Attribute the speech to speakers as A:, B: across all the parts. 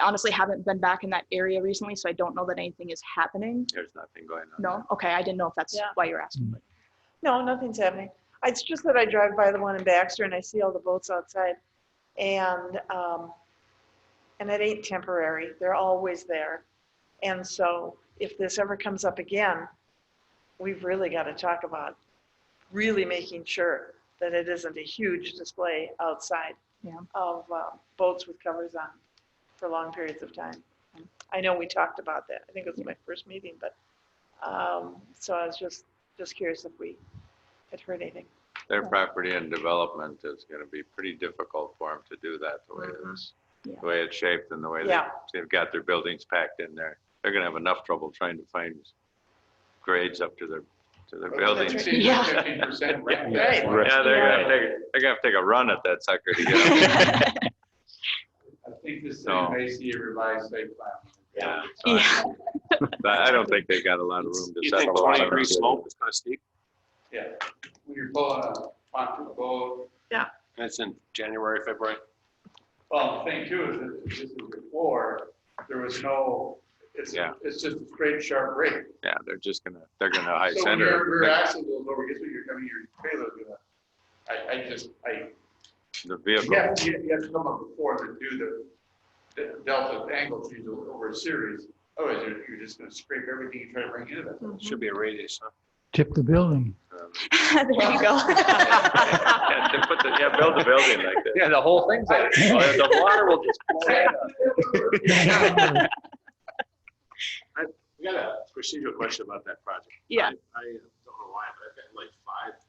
A: honestly haven't been back in that area recently, so I don't know that anything is happening.
B: There's nothing going on.
A: No? Okay, I didn't know if that's
C: Yeah.
A: why you're asking. but-
C: No, nothing's happening. It's just that I drive by the one in Baxter and I see all the boats outside. And, um, and it ain't temporary. They're always there. And so if this ever comes up again, we've really got to talk about really making sure that it isn't a huge display outside
A: Yeah.
C: of uh, boats with covers on for long periods of time. I know we talked about that. I think it was my first meeting, but, um, so I was just, just curious if we had heard anything.
B: Their property and development is gonna be pretty difficult for them to do that the way
C: Mhm.
B: it's,
A: Mm-hmm. Yeah.
B: the way it's shaped and the way they,
C: Yeah.
B: they've got their buildings packed in there. They're gonna have enough trouble trying to find grades up to their, to their buildings.
A: right. Yeah.
D: Fifteen percent rent.
C: Right.
B: Yeah, they're
C: Yeah.
B: gonna take, they're gonna have to take a run at that sucker to get up.
D: I think this is
B: So-
D: basically a Uh, revised site plan.
B: Yeah. So I-
A: Yeah,
B: I I don't think they've got a lot of room to
E: You
B: settle.
E: think
B: a lot
E: twenty
B: of
E: degree
B: it.
E: slope is gonna steep?
D: Yeah, when you're pulling a pontoon boat,
E: And it's in January, February?
D: well, the thing too is that this is before, there was no, it's,
B: Yeah.
D: it's just a straight sharp rake.
B: Yeah, they're just gonna, they're gonna high
D: So when
B: center.
D: your rear
B: everything.
D: axle goes over, guess what, you're coming, your trailer's gonna, I, I just, I,
B: The
D: you
B: vehicle,
D: have, to- you have to come up before to do the- the delta angle change over a series, otherwise you're, you're just gonna scrape everything you try to bring into that.
E: Should be a radius, huh?
F: tip the building.
A: there you go.
B: yeah, they put the, yeah, build the building like that.
D: Yeah, the whole thing's like.
B: The water will just
E: I got a procedural question about that project.
A: Yeah.
E: I I don't know why, but I've gotten like five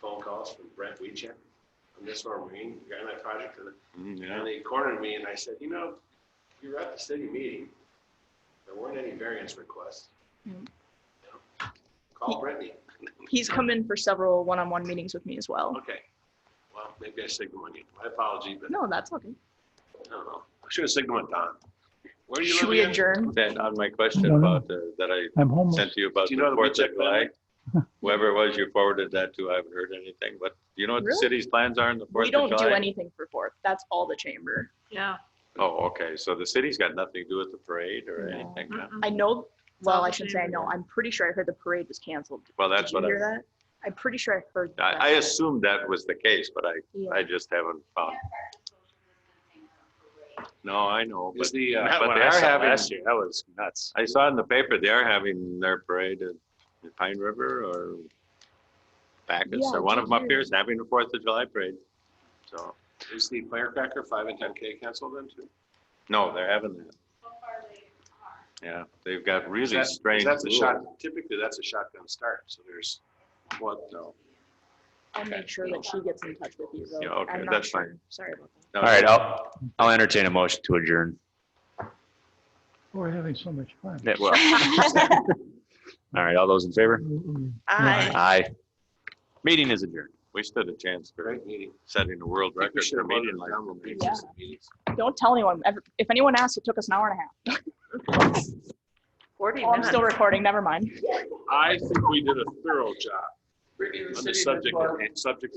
E: phone calls from Brett Weechek on this or Marine, the guy on that project, and
B: Mm, Yeah,
E: and they cornered me and I said, you know, you were at the city meeting. There weren't any variance requests. You
D: Mm-hmm.
A: Mm.
E: know, Call Brittany.
A: He's come in for several one-on-one meetings with me as well.
E: Okay. Well, maybe I signal on you. My apology, but
A: No, that's okay.
E: I don't know. I should have signaled on Don. Where do you
A: Should
E: live
A: we
E: again?
A: adjourn?
B: Then on my question
F: No, no.
B: about, the- that I
F: I'm homeless.
B: sent to you about
E: Do
B: the
E: you know the
B: Fourth of
E: Weechek
B: July,
E: family?
B: whoever it was you forwarded that to, I haven't heard anything, but do you know what the
A: Really?
B: city's plans are in the Fourth
A: We
B: of July?
A: don't do anything for Fourth. That's all the chamber.
C: Yeah.
B: Oh, okay, so the city's got nothing to do with the parade or
A: No.
B: anything? huh?
A: I know, well,
C: all
A: I
C: the
A: shouldn't say I
C: chamber.
A: know. I'm pretty sure I heard the parade was canceled.
B: Well, that's
A: Did
B: what
A: you hear
B: I,
A: that? I'm pretty sure I heard. that.
B: I, I assumed that was the case, but I,
A: Yeah.
B: I just haven't found. No, I know, but
E: Is the,
B: Not
E: uh,
B: what
E: but they
B: I
E: are
B: saw
E: having.
B: last
E: year, that was nuts.
B: I saw in the paper, they are having their parade at the Pine River or Bacchus,
A: Yeah,
B: or one of them
A: I
B: up
A: did
B: here
A: hear.
B: is having the Fourth of July parade. So,
E: Is the firecracker five and ten K canceled then too?
B: no, they're having that. Yeah, they've got
E: Is
B: really
E: that-
B: strange
E: That's a
B: rules.
E: shot, typically that's a shotgun start, so there's, what, no.
A: I'll make sure that she gets in touch with you. though.
B: Yeah, okay,
A: I'm not
B: that's
A: sure.
B: fine.
A: Sorry about that.
B: No,
G: All right, I'll, I'll entertain a motion to adjourn.
F: We're having so much fun.
G: Yeah, well, All right, all those in favor?
F: Mm-hmm.
C: I.
G: Aye. Meeting is adjourned.
B: We stood a chance for
E: Great meeting.
B: setting a world
E: I think we
B: record
E: should
B: for
E: have
B: meeting
E: voted
B: like.
E: down with
A: Yeah.
E: pizza meetings.
A: Don't tell anyone. If- If anyone asks, it took us an hour and a half.
C: Forty
A: Oh, I'm still recording. Never mind.
E: I think we did a thorough job
D: Brittany, the
E: on the
D: city has
E: subject,
D: bought-
E: subject